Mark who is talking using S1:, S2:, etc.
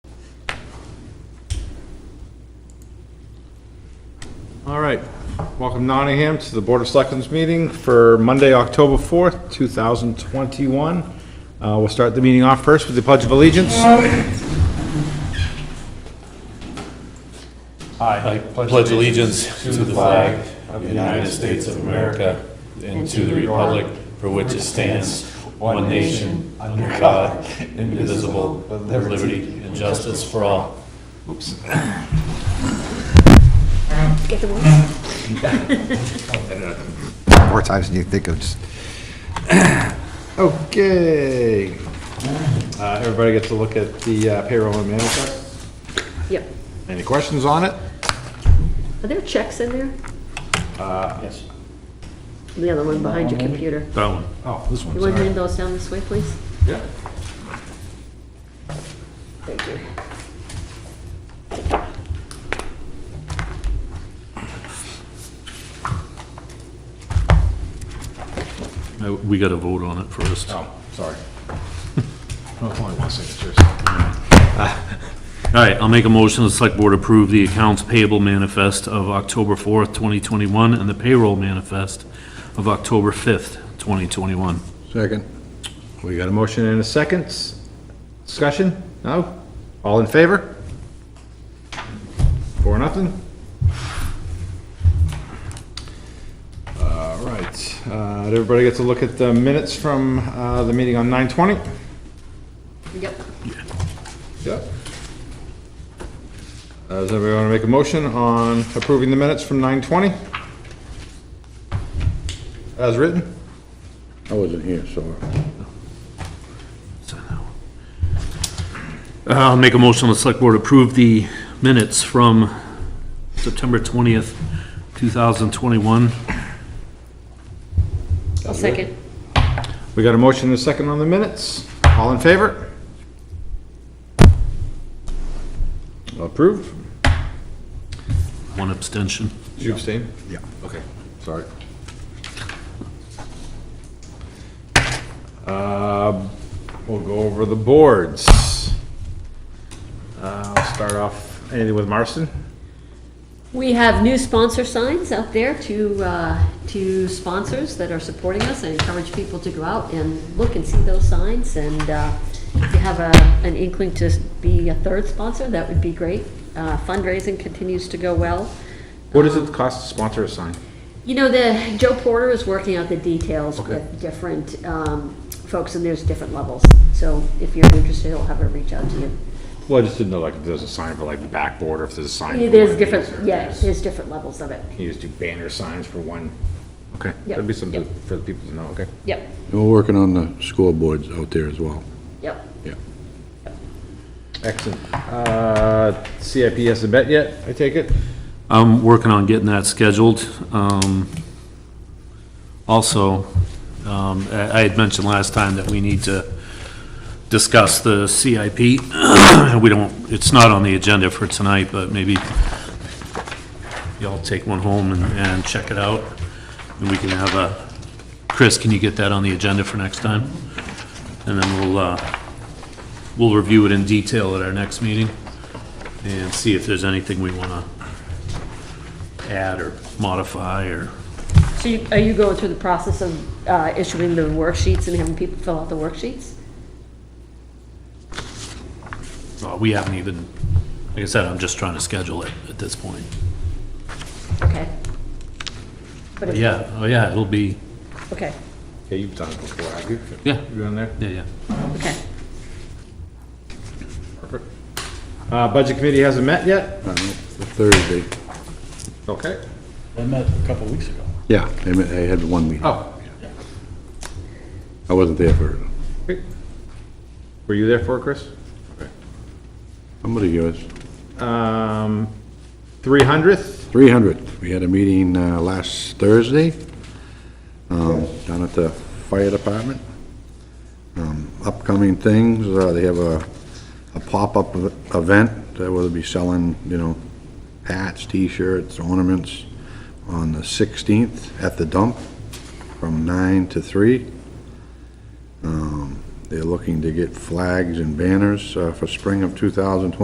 S1: All right, welcome Nottingham to the Board of Selectmen's meeting for Monday, October 4th, 2021. Uh, We'll start the meeting off first with the Pledge of Allegiance.
S2: I pledge allegiance to the flag of the United States of America and to the republic for which it stands, one nation, under God, indivisible, with liberty and justice for all.
S3: more times than you think of, just
S1: Okay. Uh, Everybody gets to look at the uh, payroll and manifest.
S4: Yep.
S1: Any questions on it?
S4: Are there checks in there?
S2: Yes.
S4: The other one behind your computer.
S2: That one.
S1: Oh, this
S4: You
S1: one's
S4: want to hand those down this way, please?
S1: Yeah.
S4: Thank you.
S5: Uh, We got to vote on it first. All
S1: Oh, sorry. Oh, Only one signature.
S5: right, I'll make a motion, the select board approve the accounts payable manifest of October 4th, 2021, and the payroll manifest of October 5th, 2021.
S1: Second. We got a motion and a second. Discussion? No? All in favor? Four, nothing? All right. Uh, Did everybody get to look at the minutes from uh, the meeting on 9:20?
S4: Yep.
S1: Yep. Does everybody want to make a motion on approving the minutes from 9:20? As written?
S6: I wasn't here, so.
S5: So now- Uh, I'll make a motion, the select board approve the minutes from September 20th, 2021.
S4: I'll second.
S1: We got a motion and a second on the minutes. All in favor? Approved?
S5: One abstention.
S1: Did you abstain?
S3: Yeah.
S1: Okay, sorry. Uh, We'll go over the boards. Uh, I'll Start off, anything with Marston?
S4: We have new sponsor signs out there to, uh, to sponsors that are supporting us. I encourage people to go out and look and see those signs. And uh, if you have a, an inkling to be a third sponsor, that would be great. Uh, Fundraising continues to go well.
S1: What does it cost to sponsor a sign?
S4: You know, the, Joe Porter is working out the details with different um, folks, and there's different levels. So if you're interested, he'll have her reach out to you.
S1: Well, I just didn't know, like, if there's a sign for, like, the backboard, or if there's a sign.
S4: Yeah,
S1: for one
S4: There's
S1: of these, or
S4: different, yeah,
S1: if there's-
S4: there's different levels of it.
S1: You just do banner signs for one, okay.
S4: Yep,
S1: That'd be something
S4: yep.
S1: for the people to know, okay.
S4: Yep,
S6: And we're working on the scoreboards out there as well.
S4: yep.
S6: Yeah.
S1: Excellent. Uh, CIP hasn't met yet, I take it?
S5: I'm working on getting that scheduled. Um, Also, um, I I had mentioned last time that we need to discuss the CIP. We don't, it's not on the agenda for tonight, but maybe y'all take one home and, and check it out. And we can have a, Chris, can you get that on the agenda for next time? And then we'll, uh, we'll review it in detail at our next meeting and see if there's anything we want to add or modify or,
S4: So you- are you going through the process of uh, issuing the worksheets and having people fill out the worksheets?
S5: well, we haven't even, like I said, I'm just trying to schedule it at this point.
S4: Okay. But
S5: But
S4: if-
S5: yeah, oh yeah, it'll be,
S4: Okay,
S1: Yeah, you've done it before, have you?
S5: Yeah.
S1: You on there?
S5: yeah, yeah.
S4: okay.
S1: Perfect. Uh, budget committee hasn't met yet?
S6: I don't know, Thursday.
S1: Okay.
S2: I met a couple weeks ago.
S6: Yeah, they met- they had one meeting.
S1: Oh.
S6: I wasn't there for it.
S1: great. Were you there for it, Chris?
S6: Somebody give us
S1: Um, three hundredth?
S6: 300. We had a meeting uh, last Thursday um, down at the fire department. Um, Upcoming things, uh, they have a a pop-up ev- event that will be selling, you know, hats, t-shirts, ornaments on the 16th at the dump from 9 to 3. Um, They're looking to get flags and banners uh, for spring of 2020.